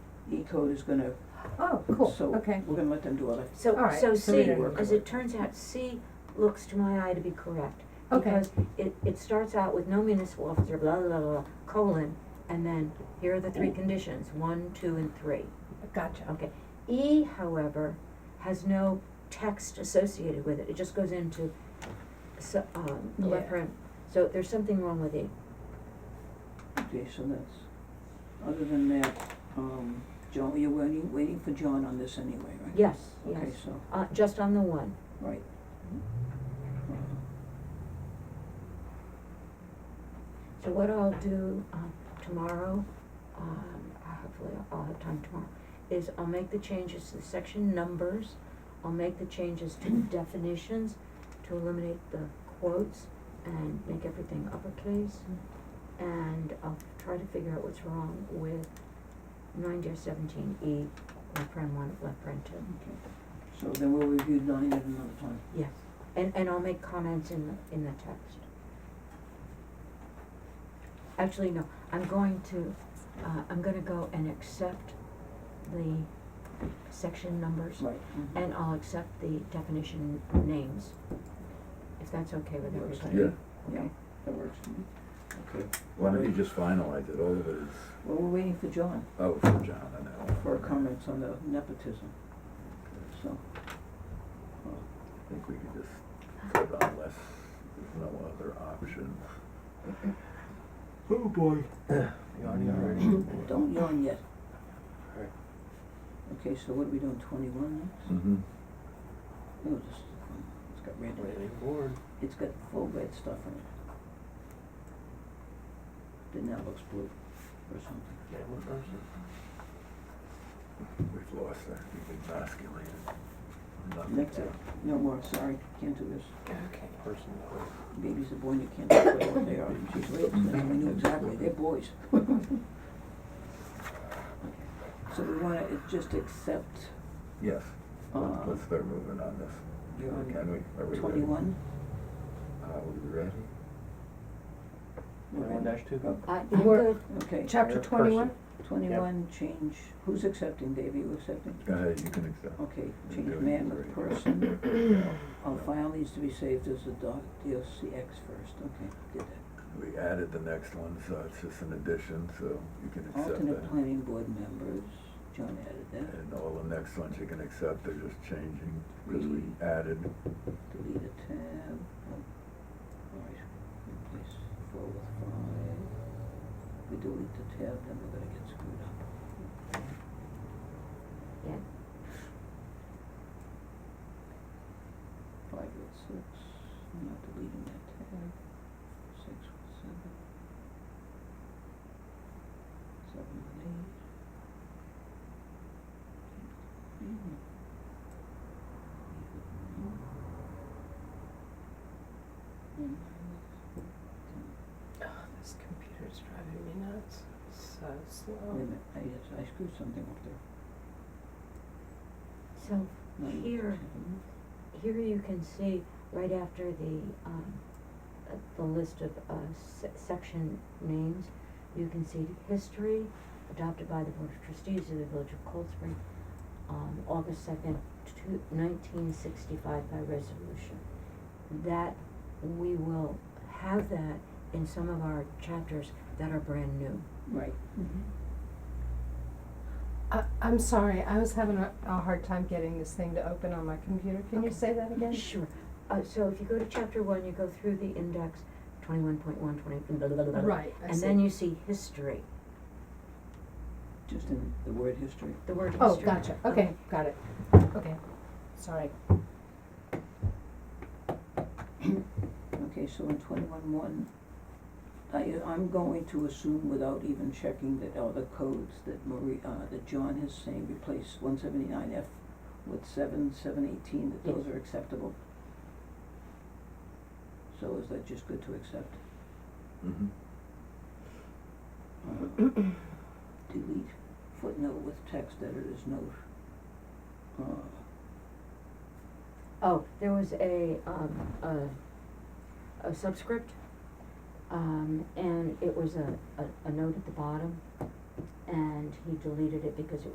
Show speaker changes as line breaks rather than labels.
E-code is gonna,
Oh, cool,
so
okay.
we're gonna let them do all that.
So,
All right,
so
so we
C,
don't-
as it turns out, C looks to my eye to be correct.
Okay.
Because it, it starts out with no municipal officer, blah, blah, blah, colon, and then here are the three conditions, one, two, and three.
Gotcha.
Okay. E, however, has no text associated with it, it just goes into, so, um,
Yeah.
referent, so there's something wrong with E.
Okay, so that's, other than that, um, John, you're waiting, waiting for John on this anyway, right?
Yes, yes,
Okay, so,
uh, just on the one.
right.
So what I'll do, um, tomorrow, um, hopefully I'll have time tomorrow, is I'll make the changes to the section numbers, I'll make the changes to definitions to eliminate the quotes and make everything uppercase. And I'll try to figure out what's wrong with nine dash seventeen E, left paren one, left paren two.
Okay, so then we'll review nine at another time.
Yes, and, and I'll make comments in the, in the text. Actually, no, I'm going to, uh, I'm gonna go and accept the section numbers,
Right. mhm.
and I'll accept the definition names, if that's okay with
Works.
everybody.
Yeah,
Yeah,
Okay.
that works for me.
okay. Why don't you just finalize it, all of it is,
Well, we're waiting for John
oh, for John, I know.
for comments on the nepotism, so. uh,
I think we could just, put it on unless there's no other option. Oh, boy. Mm-hmm.
Don't yawn yet.
Right.
Okay, so what are we doing, twenty-one next?
Mm-hmm.
Oh, this is fun. It's got red,
Waiting board.
it's got full red stuff in it. Then that looks blue or something.
Name of person.
We've lost that, we've emasculated. Nothing
That's it, no more, sorry, can't do this.
Okay. Person.
Babies are born, you can't tell what they are, she's raped, and then we knew exactly, they're boys. So we wanna uh, just accept,
Yes,
uh,
let's start moving on this.
you're on
Can we, are we ready? Uh,
twenty-one?
Are we ready?
Twenty-one dash two.
Oh,
I, Uh, I'm
We're-
good,
Okay,
Chapter
Mayor,
twenty-one?
person.
twenty-one, change, who's accepting, Dave, are you accepting?
Go ahead, you can accept.
Okay,
You're
change
doing
man with
great.
person,
Yeah.
a file needs to be saved as a doc, DOCX first, okay, did that.
We added the next one, so it's just an addition, so you can accept that.
Alternate planning board members, John added that,
And all the next ones you can accept, they're just changing, because we
Mm.
added,
delete a tab, oh, alright, replace four with five. We delete the tab, then we're gonna get screwed up.
yeah,
Five with six, I'm not deleting that tab, six with seven. Seven with eight. Eight with nine. Eight with nine. And nine with ten.
Oh, this computer's driving me nuts. It's so
Wait a
slow.
minute, I, yes, I screwed something up there.
so
Nine with
here,
ten.
here you can see right after the, um, uh, the list of, uh, se- section names, you can see history adopted by the Board of Trustees of the Village of Cold Spring, um, August second, two, nineteen sixty-five by resolution. That, we will have that in some of our chapters that are brand new.
Right.
I, I'm sorry, I was having a, a hard time getting this thing to open on my computer. Can you
Okay.
say that again?
Sure, uh, so if you go to chapter one, you go through the index, twenty-one point one, twenty, blah, blah, blah, blah, blah.
Right, I
And
see.
then you see history.
Just in the word history.
The word
Oh,
history.
gotcha, okay, got it, okay, sorry.
Okay, so in twenty-one one, I, I'm going to assume without even checking that all the codes that Marie, uh, that John is saying replace one seventy-nine F with seven, seven eighteen, that those are acceptable. So is that just good to accept?
mhm,
Uh, Delete footnote with text editor's note. Uh,
Oh, there was a, um, a, a subscript, um, and it was a, a, a note at the bottom, and he deleted it because it